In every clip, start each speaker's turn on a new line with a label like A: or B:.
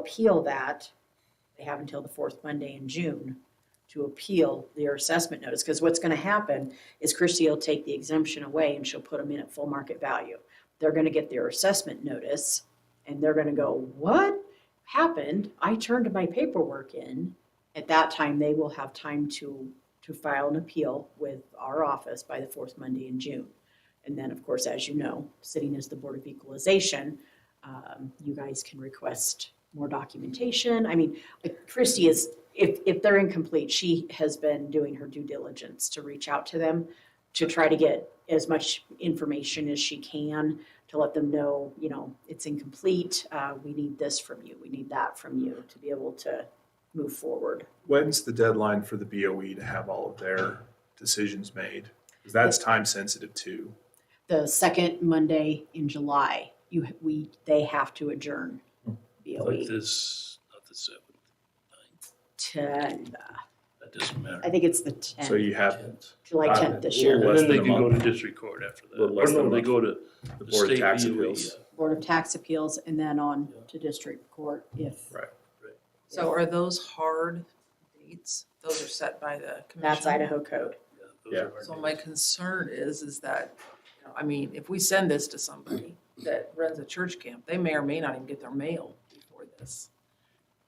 A: appeal that, they have until the fourth Monday in June to appeal their assessment notice, because what's gonna happen is Christie will take the exemption away and she'll put them in at full market value. They're gonna get their assessment notice and they're gonna go, what happened? I turned my paperwork in. At that time, they will have time to, to file an appeal with our office by the fourth Monday in June. And then, of course, as you know, sitting as the Board of Equalization, um, you guys can request more documentation. I mean, like, Christie is, if, if they're incomplete, she has been doing her due diligence to reach out to them to try to get as much information as she can to let them know, you know, it's incomplete. Uh, we need this from you. We need that from you to be able to move forward.
B: When's the deadline for the BOE to have all of their decisions made? Because that's time sensitive too.
A: The second Monday in July, you, we, they have to adjourn
B: Hmm.
A: E. BOE.
C: Like this, not the seventh, ninth,
A: Ten,
C: that doesn't
A: I
C: matter.
A: think it's the tenth.
B: So you have
A: July
B: Uh,
A: tenth this
B: yeah.
A: year.
B: Less
C: And then they
B: than a
C: can go to
B: month.
C: district court after that.
B: Little less
C: Or no,
B: than a
C: they
B: month.
C: go to
B: the
C: the
B: Board of
C: state
B: Tax
D: E,
C: DOE,
B: Appeals.
C: yeah.
A: Board of Tax Appeals and then on
C: Yeah.
A: to district court if.
B: Right.
E: So are those hard dates? Those are set by the commission?
A: That's Idaho code.
C: Yeah, those
B: Yeah.
C: are our
E: So my
C: days.
E: concern is, is that, you know, I mean, if we send this to somebody that runs a church camp, they may or may not even get their mail before this.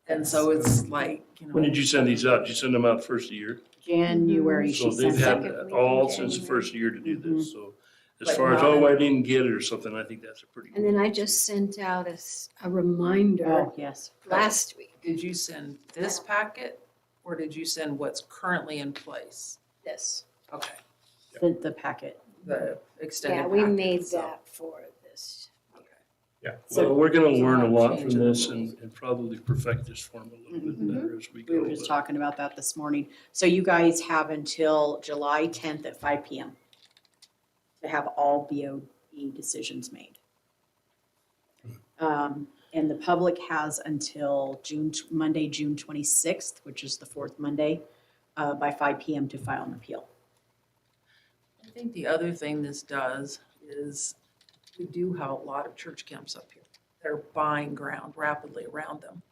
E: And so it's like, you know.
C: When did you send these out? Did you send them out first of the year?
A: January,
C: Mm-hmm. So
A: she
C: they've
A: sent
C: had
A: it.
C: that
F: week
C: all
F: in
C: since the
F: January.
C: first year to do this, so. As
E: But
C: far as,
E: not
C: oh, I
E: in-
C: didn't get it or something, I think that's a pretty.
F: And then I just sent out a, s- a reminder
A: Oh, yes.
F: last week,
E: Did you send this packet or did you send what's currently in place?
F: this.
E: Okay,
A: Sent the packet.
E: the extended
F: Yeah, we
E: packet,
F: made
E: so,
F: that for this.
E: okay.
C: Well, we're gonna learn a lot from
E: Change in the
C: this and, and probably perfect this form a little bit
A: Mhm.
C: better as we go.
A: We were just
C: but-
A: talking about that this morning. So you guys have until July tenth at five P M. To have all B O E decisions made.
C: Hmm.
A: Um, and the public has until June, tw- Monday, June twenty-sixth, which is the fourth Monday, uh, by five P M to file an appeal.
E: I think the other thing this does is we do have a lot of church camps up here. They're buying ground rapidly around them.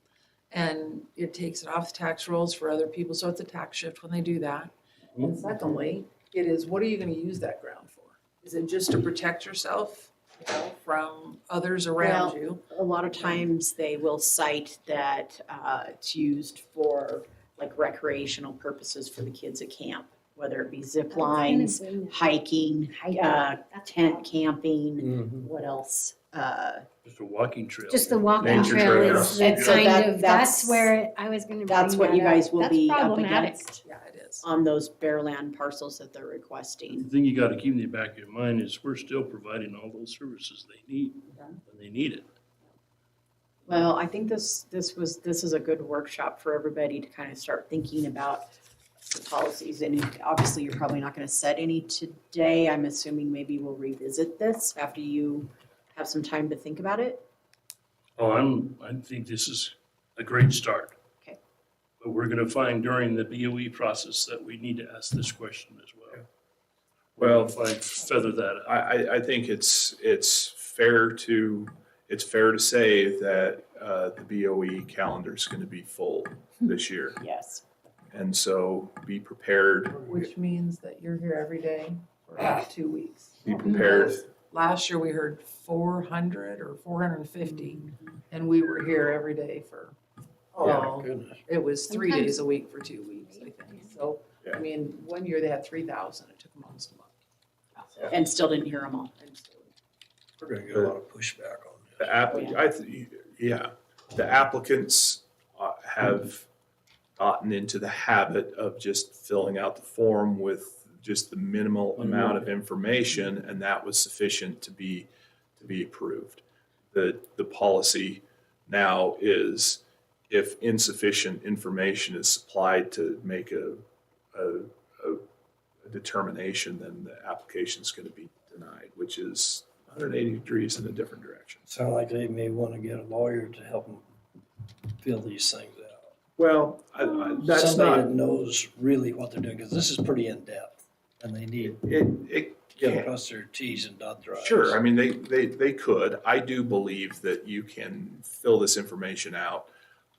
E: And it takes it off the tax rolls for other people, so it's a tax shift when they do that. And secondly, it is, what are you gonna use that ground for? Is it just to protect yourself, you know, from others around
A: Well,
E: you?
A: A lot of times they will cite that uh, it's used for like recreational purposes for the kids at camp, whether it be zip lines, hiking, uh, tent camping, what else? Uh,
C: Just a walking trail.
F: Just the walking
B: Nature
F: trail
B: trails.
F: is
A: And
F: the
A: so that-
F: kind of,
A: that's-
F: that's where it- I was gonna bring
A: That's what you
F: that up.
A: guys will
F: That's
A: be up
F: problematic.
A: against
E: Yeah, it is.
A: on those bare land parcels that they're
C: The
A: requesting.
C: thing you gotta keep in the back of your mind is we're still providing all those services they need when they need it.
A: Well, I think this, this was, this is a good workshop for everybody to kind of start thinking about the policies. And obviously, you're probably not going to set any today. I'm assuming maybe we'll revisit this after you have some time to think about it.
C: Oh, I'm, I think this is a great start.
A: Okay.
C: But we're gonna find during the BOE process that we need to ask this question as well.
B: Well,
C: If I feather that
B: I,
C: out.
B: I, I think it's, it's fair to, it's fair to say that, uh, the BOE calendar's gonna be full this year.
A: Yes.
B: And so be prepared,
E: Which means that you're here every day for about two weeks.
B: be prepared.
E: Last year, we heard four hundred or four hundred and fifty, and we were here every day for, oh, it was three
F: Sometimes-
E: days a week for two weeks, I think. So,
B: Yeah.
E: I mean, one year they had three thousand, it took them almost a month.
A: And still didn't hear them all.
E: And so-
D: We're gonna get a lot of pushback on this.
B: The app, I, th- yeah, the applicants uh, have gotten into the habit of just filling out the form with just the minimal amount of information, and that was sufficient to be, to be approved. The, the policy now is if insufficient information is supplied to make a, a, a determination, then the application's gonna be denied, which is 180 degrees in a different direction.
D: Sound like they may wanna get a lawyer to help them fill these things out.
B: Well, I, I, that's
D: Um, Somebody
B: not,
D: that knows really what they're doing, because this is pretty in-depth, and they need
B: it, it,
D: to
B: yeah,
D: cross their Ts and dot their Is.
B: sure, I mean, they, they, they could. I do believe that you can fill this information out